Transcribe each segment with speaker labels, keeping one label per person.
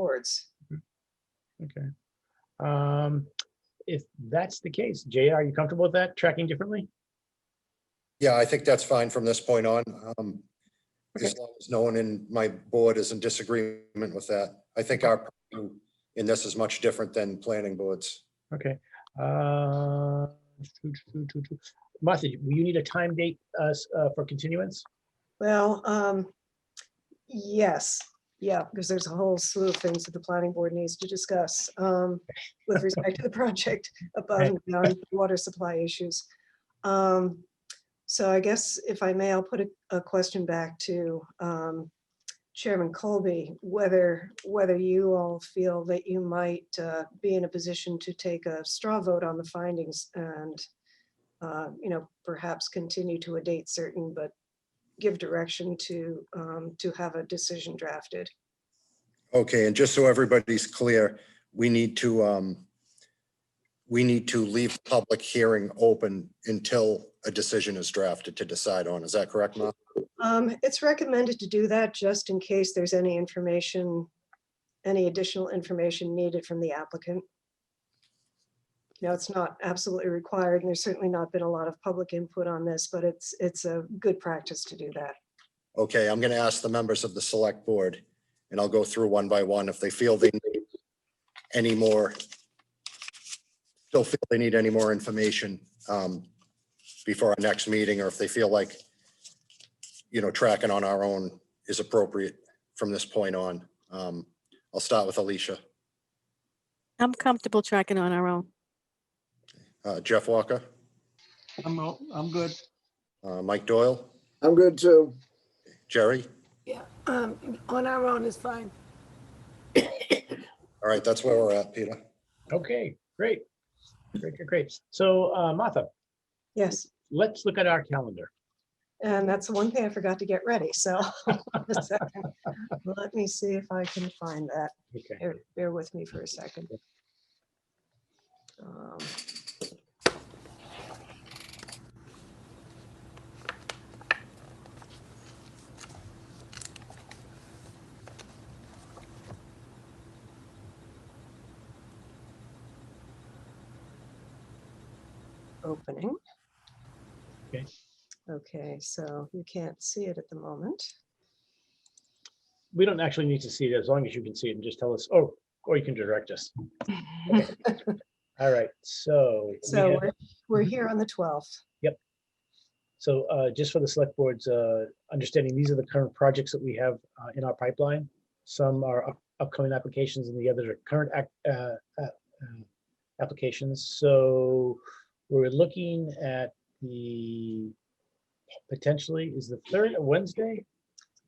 Speaker 1: boards.
Speaker 2: Okay. Um, If that's the case, Jay, are you comfortable with that, tracking differently?
Speaker 3: Yeah, I think that's fine from this point on. um, As long as no one in my board is in disagreement with that. I think our, purview in this is much different than planning boards.
Speaker 2: Okay. uh, choo- choo- choo- choo. Martha, will you need a time date uh, s- uh, for continuance?
Speaker 1: Well, um, yes, yeah, because there's a whole slew of things that the planning board needs to discuss um, with respect to the project above and beyond water supply issues. Um, So I guess if I may, I'll put a, a question back to um, Chairman Colby, whether, whether you all feel that you might uh, be in a position to take a straw vote on the findings and, uh, you know, perhaps continue to a date certain, but give direction to, um, to have a decision drafted.
Speaker 3: Okay, and just so everybody's clear, we need to, um, we need to leave public hearing open until a decision is drafted to decide on. Is that correct, Mark?
Speaker 1: Um, it's recommended to do that just in case there's any information, any additional information needed from the applicant. Now, it's not absolutely required, and there's certainly not been a lot of public input on this, but it's, it's a good practice to do that.
Speaker 3: Okay, I'm going to ask the members of the select board, and I'll go through one by one. If they feel they need any more, still feel they need any more information um, before our next meeting, or if they feel like, you know, tracking on our own is appropriate from this point on. Um, I'll start with Alicia.
Speaker 4: I'm comfortable tracking on our own.
Speaker 3: Uh, Jeff Walker,
Speaker 5: I'm, o- I'm good.
Speaker 3: uh, Mike Doyle,
Speaker 6: I'm good too.
Speaker 3: Jerry.
Speaker 7: Yeah, um, on our own is fine.
Speaker 3: All right, that's where we're at, Peter.
Speaker 2: Okay, great. Great, great, great. So uh, Martha,
Speaker 1: Yes,
Speaker 2: let's look at our calendar.
Speaker 1: and that's the one thing I forgot to get ready, so. a second. Let me see if I can find that.
Speaker 2: Okay.
Speaker 1: Bear, bear with me for a second. Um, Opening.
Speaker 2: Okay.
Speaker 1: Okay, so you can't see it at the moment.
Speaker 2: We don't actually need to see it as long as you can see it and just tell us, oh, or you can direct us. All right, so. we
Speaker 1: So
Speaker 2: have-
Speaker 1: we're, we're here on the 12th.
Speaker 2: So uh, just for the select board's uh, understanding, these are the current projects that we have uh, in our pipeline. Some are up- upcoming applications and the others are current ac- uh, uh, uh, applications. So we're looking at the potentially, is the third a Wednesday?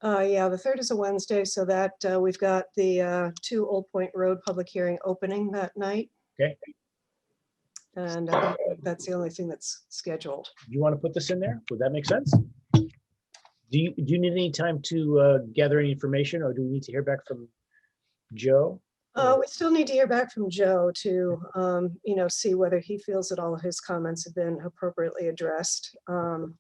Speaker 1: Uh, yeah, the third is a Wednesday, so that, uh, we've got the, uh, two Old Point Road public hearing opening that night.
Speaker 2: Okay.
Speaker 1: And I think that's the only thing that's scheduled.
Speaker 2: You want to put this in there? Would that make sense? Do you, do you need any time to uh, gather any information or do we need to hear back from Joe?
Speaker 1: Uh, we still need to hear back from Joe to, um, you know, see whether he feels that all of his comments have been appropriately addressed. Um,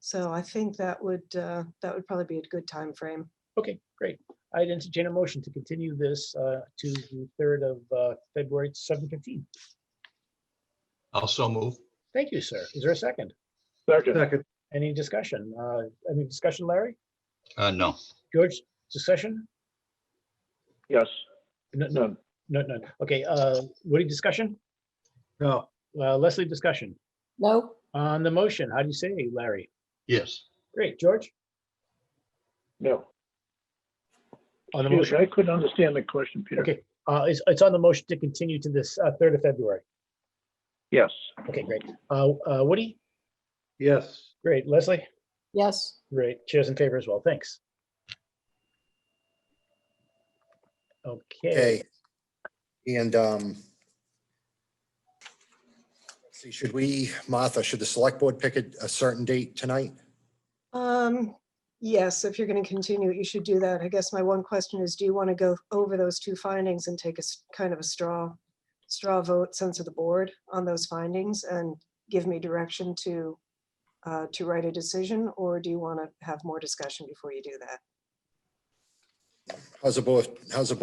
Speaker 1: so I think that would, uh, that would probably be a good time frame.
Speaker 2: Okay, great. I'd entertain a motion to continue this uh, to the third of uh, February, seven fifteen.
Speaker 8: Also move.
Speaker 2: Thank you, sir. Is there a second?
Speaker 6: Second.
Speaker 2: Any discussion? Uh, Any discussion, Larry?
Speaker 8: Uh, no.
Speaker 2: George, discussion?
Speaker 9: Yes,
Speaker 2: No, no,
Speaker 9: none.
Speaker 2: no, no. Okay, uh, Woody, discussion?
Speaker 5: No,
Speaker 2: Uh, Leslie, discussion?
Speaker 7: No,
Speaker 2: On the motion, how do you say, Larry?
Speaker 8: Yes.
Speaker 2: Great, George?
Speaker 9: No.
Speaker 2: On the
Speaker 9: Excuse me,
Speaker 2: motion,
Speaker 9: I couldn't understand the question, Peter.
Speaker 2: okay. Uh, It's, it's on the motion to continue to this uh, third of February.
Speaker 9: Yes,
Speaker 2: Okay, great. Uh, uh, Woody?
Speaker 5: yes.
Speaker 2: Great. Leslie?
Speaker 7: yes.
Speaker 2: Great, chairs in favor as well, thanks. Okay,
Speaker 3: Okay. And, um, let's see, should we, Martha, should the select board pick a, a certain date tonight?
Speaker 1: Um, yes, if you're going to continue, it, you should do that. I guess my one question is, do you want to go over those two findings and take a s- kind of a straw, straw vote sense of the board on those findings and give me direction to, uh, to write a decision? Or do you want to have more discussion before you do that?
Speaker 3: How's the board, how's the